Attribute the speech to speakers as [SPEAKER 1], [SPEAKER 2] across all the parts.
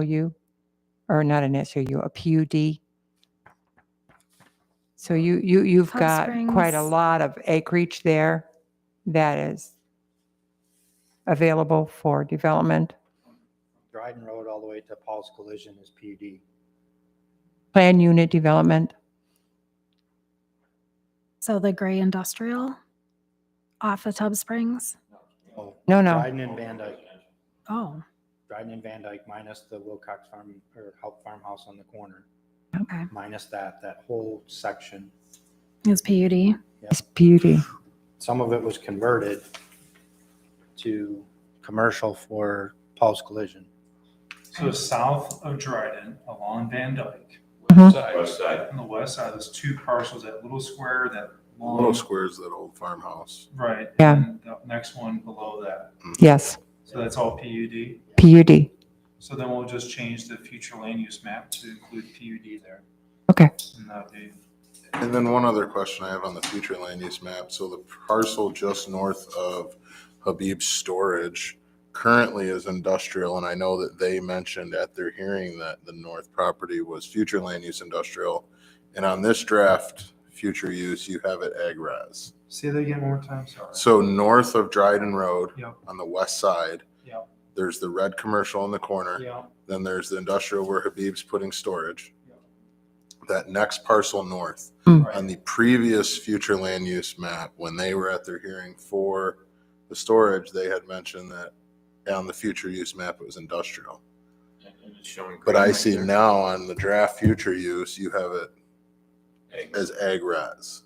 [SPEAKER 1] SOU, or not an SOU, a PUD. So you, you, you've
[SPEAKER 2] Hot
[SPEAKER 1] got quite a
[SPEAKER 2] springs.
[SPEAKER 1] lot of acreage there that is available for development.
[SPEAKER 3] Dryden Road all the way to Paul's Collision is PUD.
[SPEAKER 1] Plan unit development,
[SPEAKER 2] So the gray industrial off of Tub Springs.
[SPEAKER 3] Oh,
[SPEAKER 1] no, no,
[SPEAKER 3] Dryden and Van Dyke,
[SPEAKER 2] Oh,
[SPEAKER 3] Dryden and Van Dyke minus the Wilcox Farm or Help Farmhouse on the corner,
[SPEAKER 2] okay.
[SPEAKER 3] minus that, that whole section.
[SPEAKER 2] It's PUD.
[SPEAKER 1] it's beauty.
[SPEAKER 3] Some of it was converted to commercial for Paul's Collision.
[SPEAKER 4] So south of Dryden, along Van Dyke,
[SPEAKER 1] Mhm.
[SPEAKER 5] West side.
[SPEAKER 4] on the west side, there's two parcels, that little square, that long.
[SPEAKER 5] Little squares, that old farmhouse.
[SPEAKER 4] Right.
[SPEAKER 1] Yeah.
[SPEAKER 4] And the next one below that.
[SPEAKER 1] Yes,
[SPEAKER 4] So that's all PUD.
[SPEAKER 1] PUD.
[SPEAKER 4] So then we'll just change the future land use map to include PUD there.
[SPEAKER 1] Okay.
[SPEAKER 4] And that'd be,
[SPEAKER 5] And then one other question I have on the future land use map. So the parcel just north of Habib's Storage currently is industrial, and I know that they mentioned at their hearing that the north property was future land use industrial. And on this draft, future use, you have it ag res.
[SPEAKER 4] say that again one more time, sorry.
[SPEAKER 5] So north of Dryden Road,
[SPEAKER 4] Yep.
[SPEAKER 5] on the west side,
[SPEAKER 4] Yep.
[SPEAKER 5] there's the red commercial in the corner.
[SPEAKER 4] Yeah,
[SPEAKER 5] Then there's the industrial where Habib's putting storage.
[SPEAKER 4] Yeah.
[SPEAKER 5] That next parcel north, on
[SPEAKER 4] right,
[SPEAKER 5] the previous future land use map, when they were at their hearing for the storage, they had mentioned that on the future use map, it was industrial. But I see now on the draft future use, you have it as ag res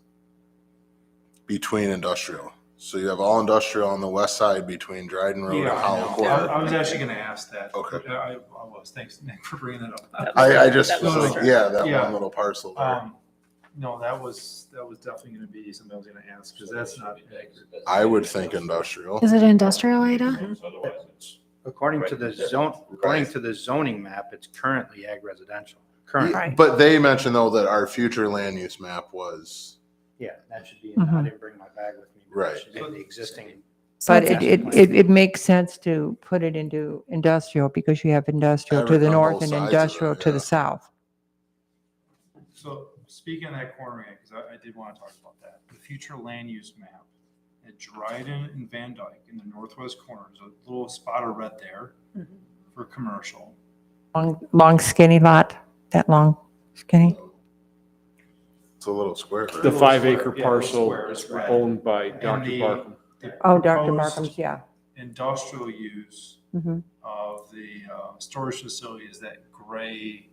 [SPEAKER 5] between industrial. So you have all industrial on the west side between Dryden Road and
[SPEAKER 4] yeah, I
[SPEAKER 5] Hollow
[SPEAKER 4] know. I
[SPEAKER 5] Court.
[SPEAKER 4] I was actually gonna ask that.
[SPEAKER 5] Okay.
[SPEAKER 4] Yeah, I, I was, thanks Nick for bringing that up.
[SPEAKER 5] I, I just
[SPEAKER 6] That
[SPEAKER 5] was
[SPEAKER 4] was
[SPEAKER 5] like,
[SPEAKER 4] true.
[SPEAKER 5] yeah, that
[SPEAKER 4] Yeah.
[SPEAKER 5] one little parcel there.
[SPEAKER 4] Um, no, that was, that was definitely gonna be something I was gonna ask, because that's not accurate.
[SPEAKER 5] I would think industrial.
[SPEAKER 2] Is it industrial, Ada?
[SPEAKER 6] Otherwise, it's.
[SPEAKER 3] According to the zone, according to the zoning map, it's currently ag residential. Current,
[SPEAKER 1] Right.
[SPEAKER 5] But they mentioned though that our future land use map was,
[SPEAKER 3] yeah, that should be,
[SPEAKER 1] Mm-hmm.
[SPEAKER 3] I didn't bring my bag with me. but that
[SPEAKER 5] Right.
[SPEAKER 3] should be The existing,
[SPEAKER 2] So
[SPEAKER 1] But
[SPEAKER 2] it's-
[SPEAKER 1] it, it, it it makes sense to put it into industrial because you have industrial to
[SPEAKER 5] Have it
[SPEAKER 1] the
[SPEAKER 5] on
[SPEAKER 1] north
[SPEAKER 5] both
[SPEAKER 1] and
[SPEAKER 5] sides of it,
[SPEAKER 1] industrial to the
[SPEAKER 5] yeah.
[SPEAKER 1] south.
[SPEAKER 4] So speaking of that corner again, because I, I did want to talk about that, the future land use map at Dryden and Van Dyke in the northwest corner, there's a little spot of red there
[SPEAKER 1] Mm-hmm.
[SPEAKER 4] for commercial.
[SPEAKER 1] Long, long skinny lot, that long skinny.
[SPEAKER 5] it's a little square. right?
[SPEAKER 7] The five acre
[SPEAKER 4] Yeah, little
[SPEAKER 7] parcel
[SPEAKER 4] square is red.
[SPEAKER 7] owned by
[SPEAKER 4] the-
[SPEAKER 7] Dr. Barkum.
[SPEAKER 4] The
[SPEAKER 1] Oh, Dr.
[SPEAKER 4] proposed
[SPEAKER 1] Markham's, yeah.
[SPEAKER 4] Industrial use
[SPEAKER 1] Mhm.
[SPEAKER 4] of the uh, storage facility is that gray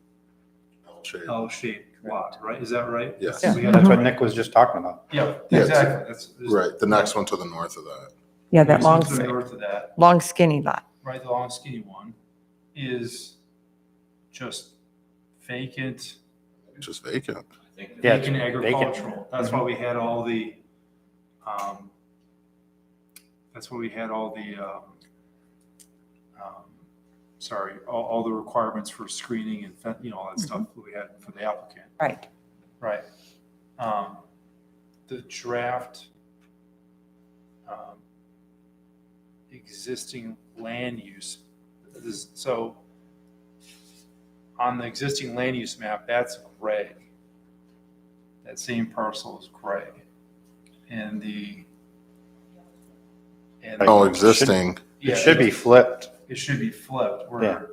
[SPEAKER 5] Shade.
[SPEAKER 4] L-shaped lot, right? Is that right?
[SPEAKER 5] Yes.
[SPEAKER 4] So we
[SPEAKER 1] Mm-hmm.
[SPEAKER 4] got-
[SPEAKER 3] that's what Nick was just talking about.
[SPEAKER 4] Yeah,
[SPEAKER 5] Yeah, it's-
[SPEAKER 4] exactly. That's. there's-
[SPEAKER 5] Right, the next one to the north of that.
[SPEAKER 1] Yeah, that
[SPEAKER 4] there's
[SPEAKER 1] long,
[SPEAKER 4] something
[SPEAKER 1] s-
[SPEAKER 4] North of that.
[SPEAKER 1] long skinny lot.
[SPEAKER 4] right, the long skinny one, is just vacant,
[SPEAKER 5] Just vacant.
[SPEAKER 3] Yeah, it's Mm-hmm.
[SPEAKER 4] vacant agricultural. That's why we had all the, um, that's why we had all the, um, um, sorry, all, all the requirements for screening and, fen- you know,
[SPEAKER 3] Mm-hmm.
[SPEAKER 4] all that stuff that we had for the applicant.
[SPEAKER 1] Right.
[SPEAKER 4] Right. Um, the draft, um, existing land use, this, is- so on the existing land use map, that's gray. That same parcel is gray. And the, and.
[SPEAKER 5] Oh, existing.
[SPEAKER 3] It should be flipped.
[SPEAKER 4] It should be flipped
[SPEAKER 3] Yeah.
[SPEAKER 4] where,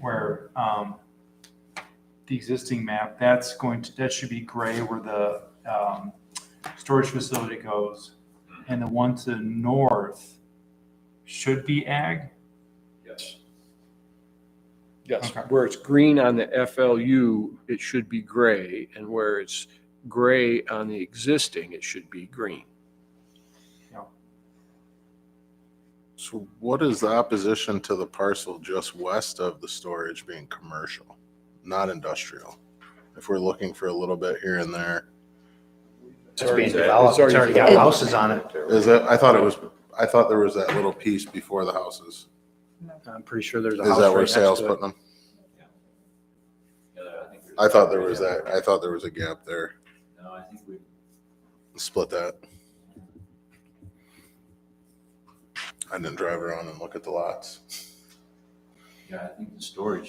[SPEAKER 4] where, um, the existing map, that's going to, that should be gray where the, um, storage facility goes. And the one to the north should be ag.
[SPEAKER 6] Yes.
[SPEAKER 7] Yes,
[SPEAKER 4] Okay.
[SPEAKER 7] where it's green on the FLU, it should be gray, and where it's gray on the existing, it should be green.
[SPEAKER 5] So what is the opposition to the parcel just west of the storage being commercial, not industrial? If we're looking for a little bit here and there,
[SPEAKER 3] It's being developed. It's
[SPEAKER 7] already
[SPEAKER 3] already got
[SPEAKER 7] developed.
[SPEAKER 3] houses on it.
[SPEAKER 5] is that, I thought it was, I thought there was that little piece before the houses.
[SPEAKER 3] I'm pretty sure there's a
[SPEAKER 5] Is
[SPEAKER 3] house right
[SPEAKER 5] that where
[SPEAKER 3] next
[SPEAKER 5] sales
[SPEAKER 3] to it.
[SPEAKER 5] putting them?
[SPEAKER 6] Yeah, I think there's-
[SPEAKER 5] I thought there was that, I thought there was a gap there.
[SPEAKER 6] No, I think we,
[SPEAKER 5] Split that. I didn't drive around and look at the lots.
[SPEAKER 6] yeah, I think the storage